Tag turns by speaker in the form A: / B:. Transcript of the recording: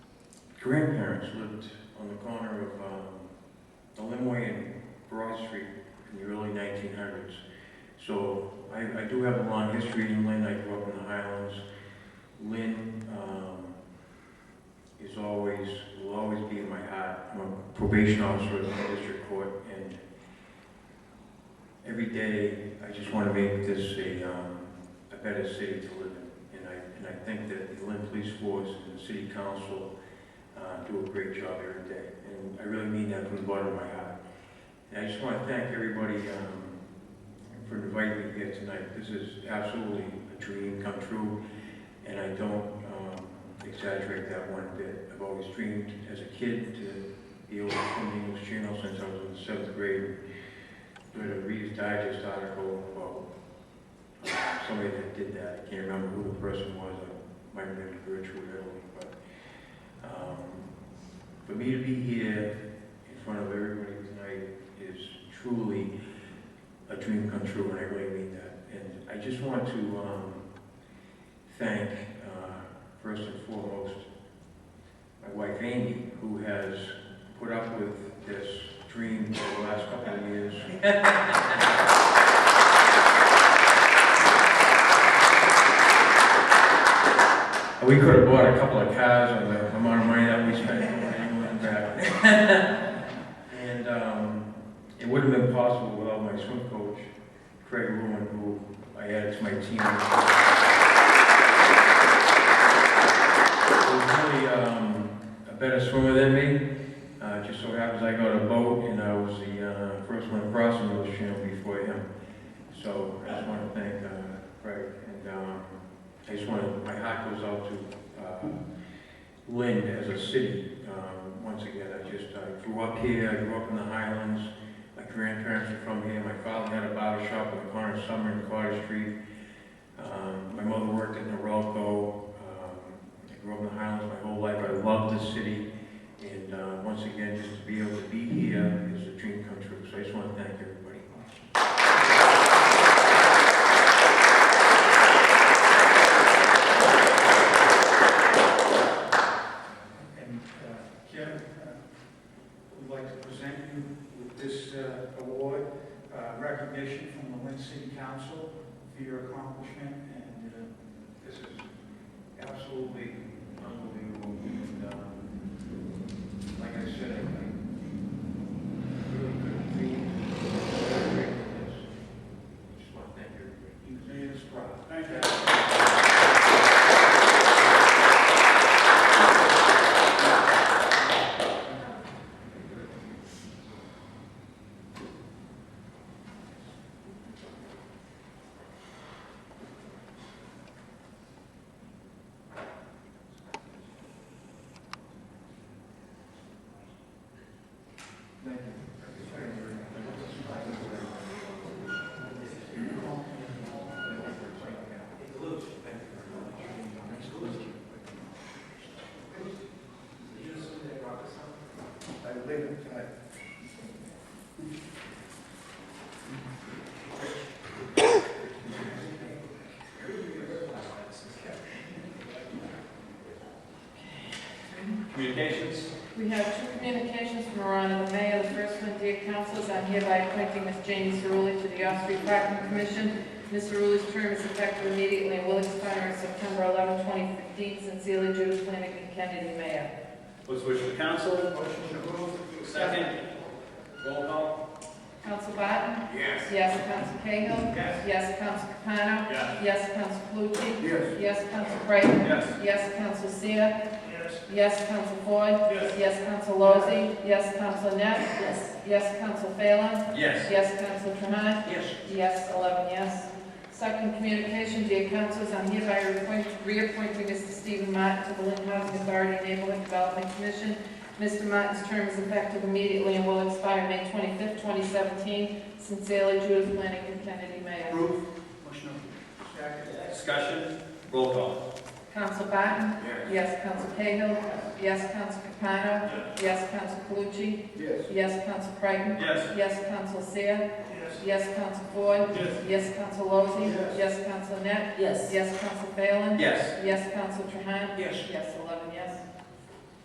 A: grandparents lived on the corner of um, the Limway and Broad Street in the early 1900s. So I, I do have a long history in Lynn. I grew up in the Highlands. Lynn um, is always, will always be in my heart. I'm a probation officer at the district court, and every day I just want to make this a, um, a better city to live in. And I, and I think that the Lynn Police Force and the City Council uh, do a great job every day, and I really mean that from the bottom of my heart. And I just want to thank everybody um, for inviting me here tonight. This is absolutely a dream come true, and I don't um, exaggerate that one bit. I've always dreamed as a kid to be able to swim the English Channel since I was in the seventh grade. Read a Reader's Digest article about uh, somebody that did that. I can't remember who the person was. I might have been Gertrude Early, but um, For me to be here in front of everybody tonight is truly a dream come true, and I really mean that. And I just want to um, thank, uh, first and foremost, my wife Amy, who has put up with this dream for the last couple of years. We could have bought a couple of cars on the amount of money that we spent on England back. And, um, it wouldn't have been possible without my swim coach, Craig Ruin, who I added to my team. He was really, um, a better swimmer than me. Uh, just so happens I got a boat and I was the, uh, first one across the English Channel before him. So I just want to thank, uh, Craig and, um, I just want to, my heart goes out to uh, Lynn as a city. Um, Once again, I just, I grew up here, I grew up in the Highlands. My grandparents are from here. My father had a barber shop on the corner of Summer and Carter Street. Um, My mother worked at Norelco. Um, I grew up in the Highlands my whole life. I love the city. And uh, once again, just to be able to be here is a dream come true. So I just want to thank everybody.
B: And uh, Jim, uh, we'd like to present you with this uh, award, uh, recognition from the Lynn City Council for your accomplishment, and uh, this is absolutely unbelievable. And um, Like I said, I really couldn't be more grateful for this.
A: Just want to thank everybody.
B: You've made us proud. Thank you. Thank I live in time.
C: Communications,
D: We have two communications from Ron and the mayor. The first one, dear councilors, I'm hereby appointing Ms. Janie Cerulli to the Off-Street Parking Commission. Ms. Cerulli's term is effective immediately and will expire on September 11, 2015. Sincerely, Judith Flanagan, Kennedy Mayor.
C: what's the wish of the council?
B: Motion to approve.
C: Second, roll call.
D: Council Barton?
B: Yes.
D: Yes, Council Cahill?
B: Yes.
D: Yes, Council Capano?
C: Yes.
D: Yes, Council Calucci?
B: Yes.
D: Yes, Council Creighton?
C: Yes.
D: Yes, Council Seer?
B: Yes.
D: Yes, Council Ford?
C: Yes.
D: Yes, Council Lozey? Yes, Council Net? Yes. Yes, Council Phelan?
C: Yes.
D: Yes, Council Trahan?
B: Yes.
D: Yes, 11 yes. Second communication, dear councilors, I'm hereby reappoint- reappointing Mr. Stephen Martin to the Lynn Housing Authority and Neighborhood Development Commission. Mr. Martin's term is effective immediately and will expire May 25th, 2017. Sincerely, Judith Flanagan Kennedy, Mayor.
B: Approve. Motion approved. Second.
C: Discussion, roll call.
D: Council Barton?
B: Yes.
D: Yes, Council Cahill? Yes, Council Capano? Yes, Council Calucci?
B: Yes.
D: Yes, Council Creighton?
C: Yes.
D: Yes, Council Seer?
B: Yes.
D: Yes, Council Ford?
C: Yes.
D: Yes, Council Lozey?
B: Yes.
D: Yes, Council Net?
E: Yes.
D: Yes, Council Phelan?
C: Yes.
D: Yes, Council Trahan?
B: Yes.
D: Yes, eleven yes.